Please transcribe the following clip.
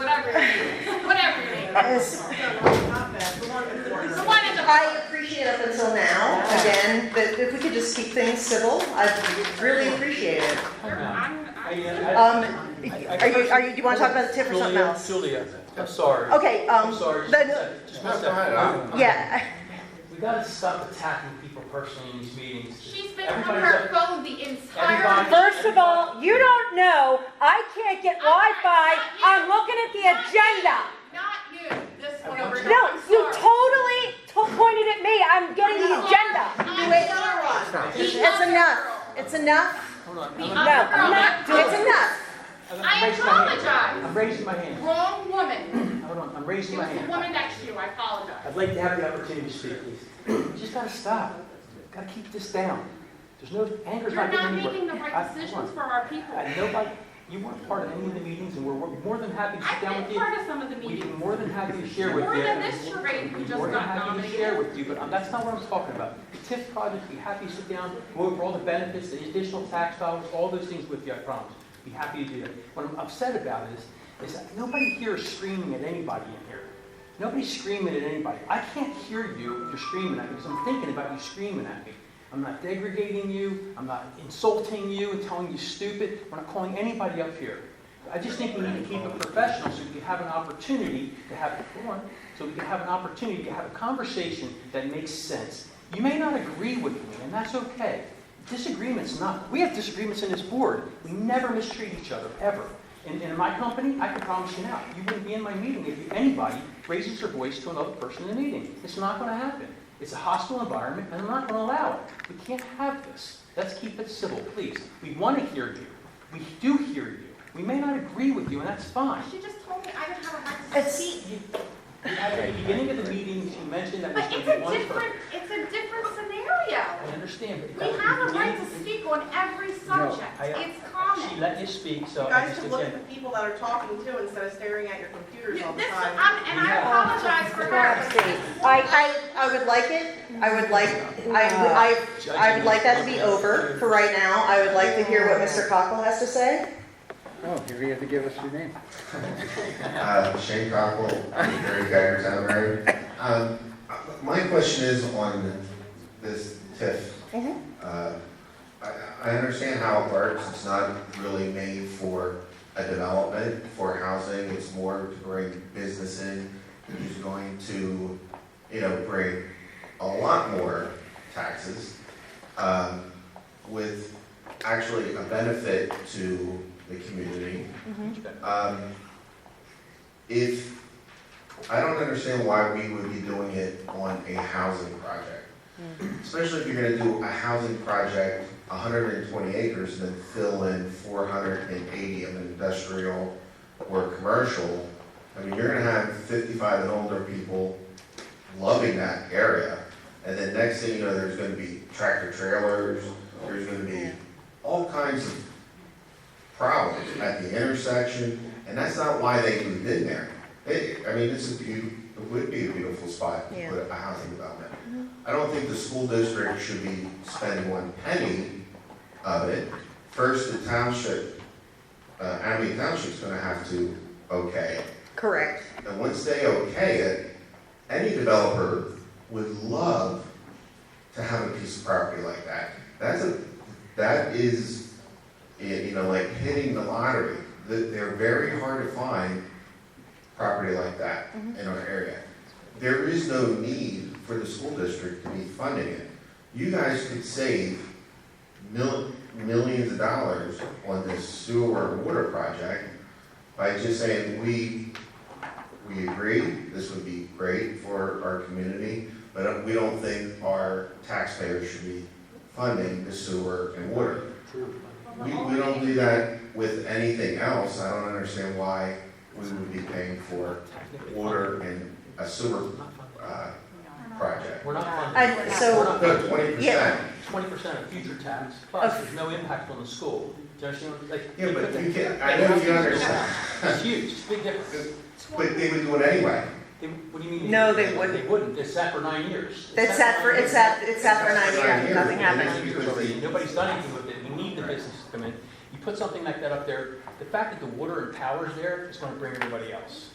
As The one at the I appreciate up until now, again, that if we could just keep things civil, I'd really appreciate it. Um, are you, are you, do you want to talk about the tip or something else? Julia, I'm sorry. Okay, um, I'm sorry. Just one then, second. Just one No, go ahead. second. I'm- yeah, We gotta stop attacking people personally in these meetings. She's been on her phone the entire. Everybody- First of all, you don't know, I can't get Wi-Fi, I'm looking at the agenda. Not you, this one over here. No, I'm you sorry. totally to- pointed at me, I'm getting the agenda. I'm sorry. it's enough, it's enough, Hold on. The I'm No, other girl, I'm not not you. it's enough. I'm- I'm I raising my hand. apologize. I'm raising my hand. Wrong woman. Hold on, I'm It raising my was the hand. woman next to you. I apologize. I'd like to have the opportunity to speak, please. You just gotta stop. Gotta keep this down. There's no, anger's You're not not getting anywhere. making the I- right hold decisions on. for our people. I know, like, you weren't part of any of the meetings, and we're we're more than happy to sit down I've with been you. part of some of the We'd be meetings. more than happy to share with you. More than this charade we We'd be just more than got happy to nominated. Share with you, but um, that's not what I'm talking about. The TIF project, be happy to sit down, go over all the benefits, the additional tax dollars, all those things with you, I promise. Be happy to do that. What I'm upset about is, is that nobody here is screaming at anybody in here. Nobody's screaming at anybody. I can't hear you if you're screaming at me because I'm thinking about you screaming at me. I'm not degrading you, I'm not insulting you and telling you stupid, we're not calling anybody up here. I just think we need to keep it professional so we can have an opportunity to have, hold on, so we can have an opportunity to have a conversation that makes sense. You may not agree with me, and that's okay. Disagreements not, we have disagreements in this board. We never mistreat each other, ever. And and in my company, I can promise you now, you wouldn't be in my meeting if you- anybody raises their voice to another person in the meeting. It's not going to happen. It's a hostile environment, and I'm not going to allow it. We can't have this. Let's keep it civil, please. We want to hear you. We do hear you. We may not agree with you, and that's fine. She just told me I didn't have a right to It's- speak. At the beginning of the meeting, you mentioned that But there's going it's to be a one different, person. it's a different scenario. I understand, but We that have was a the right beginning. to speak on every subject. I- It's She common. let you speak, so I guys just, should look at again, the people that are talking too instead of staring at your computers This, all the time. I'm, and I apologize for her. but this woman- I, I, I would like it, I would like, I, I, I would like that to be over for right now. I would like to hear what Mr. Cockle has to say. Oh, you're gonna have to give us your name. Uh, Shane Cockle, Mary Geiger, Town Mary. Um, My question is on this TIF. Mhm. Uh, I I understand how it works, it's not really made for a development, for housing, it's more to bring business in, who's going to, you know, bring a lot more taxes um, with actually a benefit to the community. Um, if, I don't understand why we would be doing it on a housing project. Especially if you're gonna do a housing project, hundred and twenty acres, and then fill in four hundred and eighty of industrial or commercial. I mean, you're gonna have fifty-five and older people loving that area. And then next thing you know, there's gonna be tractor trailers, there's gonna be all kinds of problems at the intersection. And that's not why they moved in there. They, I mean, it's a beau, it would be a beautiful spot to Yeah. put a housing development. I don't think the school district should be spending one penny of it. First, the township, uh, Amity Township's gonna have to okay it. Correct. And once they okay it, any developer would love to have a piece of property like that. That's a, that is, y- you know, like hitting the lottery. Th- They're very hard to find property like that in our area. There is no need for the school district to be funding it. You guys could save mil- millions of dollars on this sewer and water project by just saying, we we agree, this would be great for our community, but we don't think our taxpayers should be funding the sewer and water. We, we don't do that with anything else, I don't understand why we would be paying for water and a sewer, uh, project. we're not funding. I- so- We're not No, twenty percent, twenty percent of future tax, plus there's no impact on the school. Do you understand what, like? yeah, but you can't, I know you understand, It's huge, it's a big difference. but they would do it anyway. They, what do you mean? No, they wouldn't. They wouldn't, it's sat for nine years. It's sat for, it's sat, it's sat for nine years, nothing happened. Nine years already, nobody's done anything with it, we need the business to come in. You put something like that up there, the fact that the water and power's there is gonna bring everybody else.